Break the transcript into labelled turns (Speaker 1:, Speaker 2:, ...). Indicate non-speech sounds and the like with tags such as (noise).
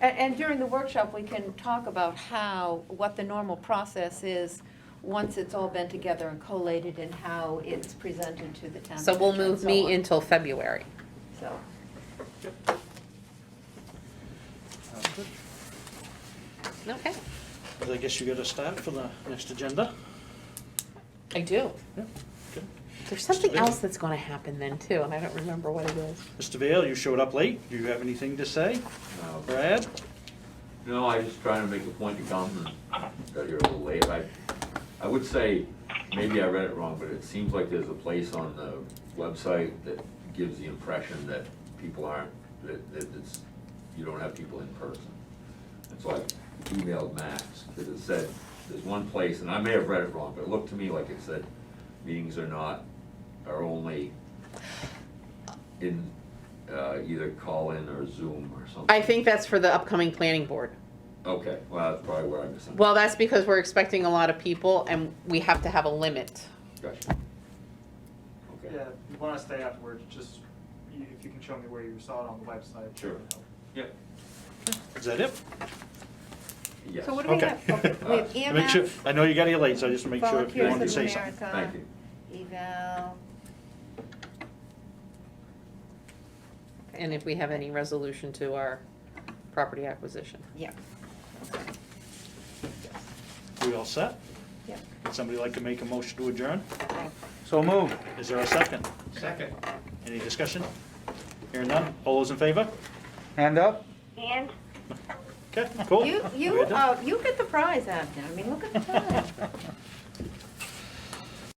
Speaker 1: And, and during the workshop, we can talk about how, what the normal process is once it's all been together and collated and how it's presented to the town.
Speaker 2: So we'll
Speaker 1: manager and
Speaker 2: move
Speaker 1: so on.
Speaker 2: me until February.
Speaker 1: So,
Speaker 3: Sounds good.
Speaker 2: Okay.
Speaker 3: Well, I guess you got a start for the next agenda?
Speaker 2: I do.
Speaker 3: Yeah. Good.
Speaker 2: There's something else that's gonna happen then too, and I don't remember what it is.
Speaker 3: Mr. Vale, you showed up late. Do you have anything to say?
Speaker 4: No.
Speaker 3: Brad?
Speaker 4: No, I was just trying to make a point to come and got here a little late. I, I would say, maybe I read it wrong, but it seems like there's a place on the website that gives the impression that people aren't, that, that it's, you don't have people in person. And so I emailed Max, because it said, there's one place, and I may have read it wrong, but it looked to me like it said, meetings are not, are only in, uh, either call-in or Zoom or something.
Speaker 2: I think that's for the upcoming planning board.
Speaker 4: Okay, well, that's probably where I misunderstood.
Speaker 2: Well, that's because we're expecting a lot of people and we have to have a limit.
Speaker 4: Gotcha. Okay,
Speaker 5: Yeah, if you wanna stay afterwards, just, you- if you can show me where you saw it on the website. that
Speaker 4: Sure.
Speaker 5: would help.
Speaker 4: yep,
Speaker 3: Is that it?
Speaker 4: yes.
Speaker 1: so what do we
Speaker 3: Okay. Uh, (laughs)
Speaker 1: have? Okay, We have
Speaker 4: Make
Speaker 3: Make sure,
Speaker 1: EMS,
Speaker 3: I know you got here late, so I just make sure if you
Speaker 1: Volunteers
Speaker 3: wanted to
Speaker 1: of
Speaker 3: say something.
Speaker 4: Thank
Speaker 1: America,
Speaker 4: you.
Speaker 1: eval.
Speaker 2: And if we have any resolution to our property acquisition.
Speaker 1: Yeah.
Speaker 3: We all set?
Speaker 1: Yep.
Speaker 3: Would somebody like to make a motion to adjourn?
Speaker 1: Okay.
Speaker 3: So moved. Is there a second?
Speaker 4: Second.
Speaker 3: Any discussion? Hearing none? All those in favor?
Speaker 6: Hand up?
Speaker 7: And
Speaker 3: Okay, cool.
Speaker 1: You, you,
Speaker 3: We're Oh, done. (laughs)
Speaker 1: uh, you get the prize, Abden. I mean, look at the time.